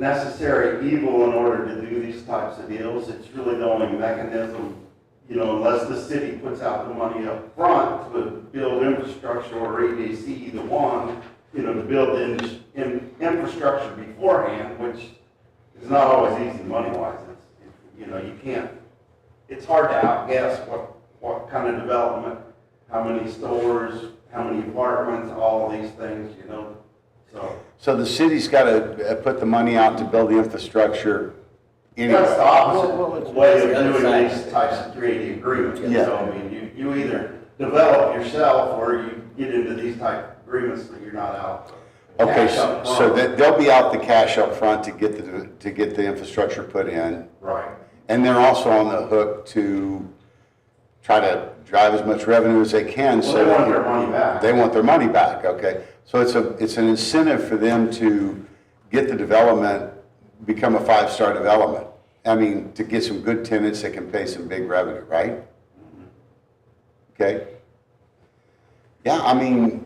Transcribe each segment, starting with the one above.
necessary evil in order to do these types of deals. It's really the only mechanism, you know, unless the city puts out the money up front to build infrastructure or EDC, either one, you know, to build in, in infrastructure beforehand, which is not always easy money-wise. It's, it- you know, you can't, it's hard to outguess what, what kind of development, how many stores, how many apartments, all these things, you know, so. So the city's got to put the money out to build the infrastructure That's the anyway. Well, well, opposite it's- way it's the of other doing side. these types of creative agreements. Yeah. So, I mean, you, you either develop yourself or you get into these type of agreements that you're not out. Okay, cash so up so front. that- they'll be out the cash up front to get the, to get the infrastructure put in. Right. And they're also on the hook to try to drive as much revenue as they can. Well, so they that want their money back. They want their money back, okay? So it's a, it's an incentive for them to get the development, become a five-star development. I mean, to get some good tenants that can pay some big revenue, right? Okay? Yeah, I mean,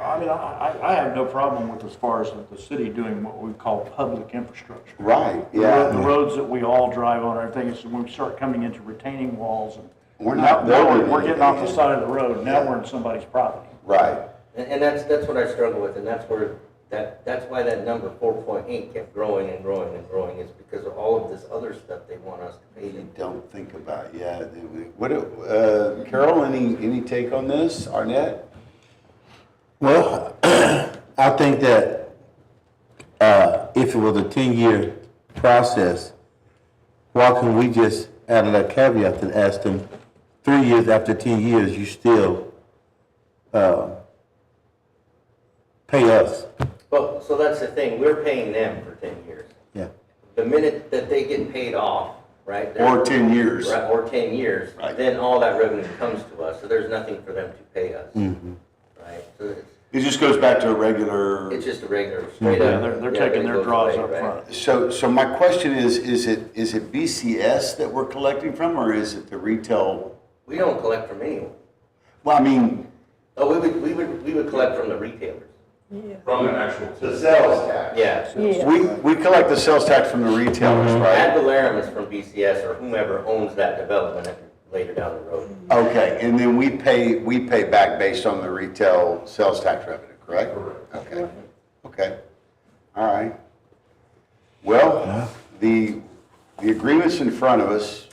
I mean, I, I I have no problem with as far as with the city doing what we call public infrastructure. right, The road- The yeah. roads that we all drive on, and everything, is when we start coming into retaining walls and. We're not Now- now we're- building We're getting off the anything. side of the road, now we're in somebody's property. Right, And, and that's, that's what I struggle with, and that's where, that, that's why that number four point eight kept growing and growing and growing, is because of all of this other stuff they want us to pay you them. don't think about, yeah. they- we- What, uh, Carol, any, any take on this? Arnett? Well, I think that uh, if it was a ten-year process, why can we just add a little caveat and ask them, three years after ten years, you still uh, pay us? But, so that's the thing, we're paying them for ten years. Yeah. The minute that they get paid off, right? they're- Or 10 years? Right, Or ten years, Right. then all that revenue comes to us, so there's nothing for them to pay us. Mm-hmm. Right, so it's, It just goes back to a regular. it's just a regular, straight up. Mm-hmm. Yeah, they're, they're taking their goes draws away, up right? front. So, so my question is, is it, is it BCS that we're collecting from, or is it the retail? We don't collect from anyone, Well, I mean, oh, we would, we would, we would collect from the retailers. From the actual. The sales tax. Yeah. we, we collect the sales tax from the retailers, Ad right? valorem is from BCS or whomever owns that development at- later down the road. Okay, and then we pay, we pay back based on the retail sales tax revenue, correct? Correct. Okay, okay, all right. Well, the, the agreement's in front of us,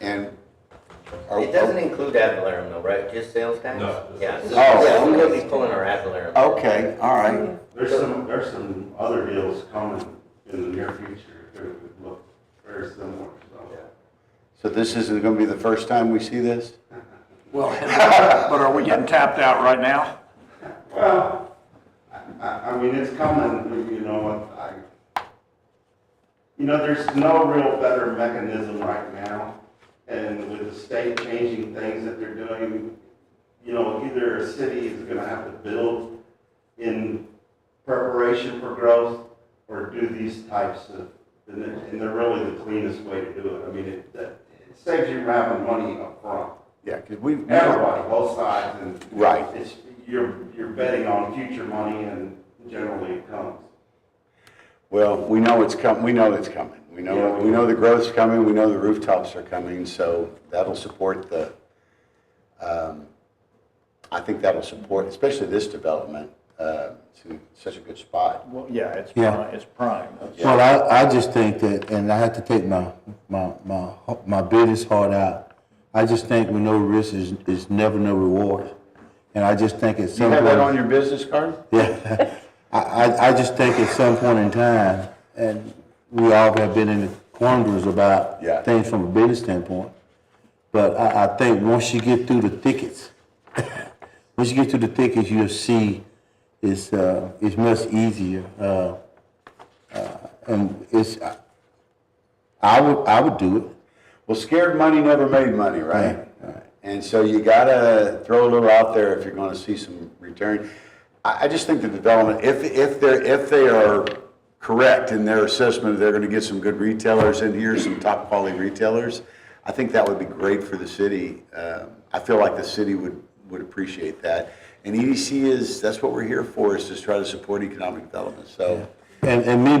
and. Oh, oh, are- It doesn't include ad valorem though, right? Just sales tax? No. Yeah, so- Oh. yeah, we would be pulling our ad valorem. Okay, all right, There's some, there's some other deals coming in the near future that would look very similar, so. Yeah. so this isn't gonna be the first time we see this? Well, but are we getting tapped out right now? Well, I, I, I mean, it's coming, you know, I, you know, there's no real better mechanism right now. And with the state changing things that they're doing, you know, either a city is gonna have to build in preparation for growth or do these types of, and they're, and they're really the cleanest way to do it. I mean, it, that- it saves you from having money up front. Yeah, because we've never, Everybody, both sides, and right. it's, you're, you're betting on future money and generally it comes. Well, we know it's com, we know it's coming. We know, Yeah. we know the growth's coming, we know the rooftops are coming, so that'll support the, um, I think that'll support, especially this development, uh, it's in such a good spot. Well, yeah, it's Yeah. prime, it's prime. That's- Well, I, I just think that, and I have to take my, my, my, my business heart out. I just think with no risk is, is never no reward. And I just think at Do you some have that point- on your business card? Yeah, I, I, I just think at some point in time, and we all have been in quandaries about Yeah. things from a business standpoint. But I, I think once you get through the thickets, once you get through the thickets, you'll see it's, uh, it's much easier. Uh, uh, and it's, I, I would, I would do it. Well, scared money never made money, right? And so you gotta throw a little out there if you're gonna see some return. I, I just think the development, if, if they're, if they are correct in their assessment, they're gonna get some good retailers in here, some top quality retailers. I think that would be great for the city. Uh, I feel like the city would, would appreciate that. E And EDC is, that's what we're here for, is to try to support economic development, so. And, and me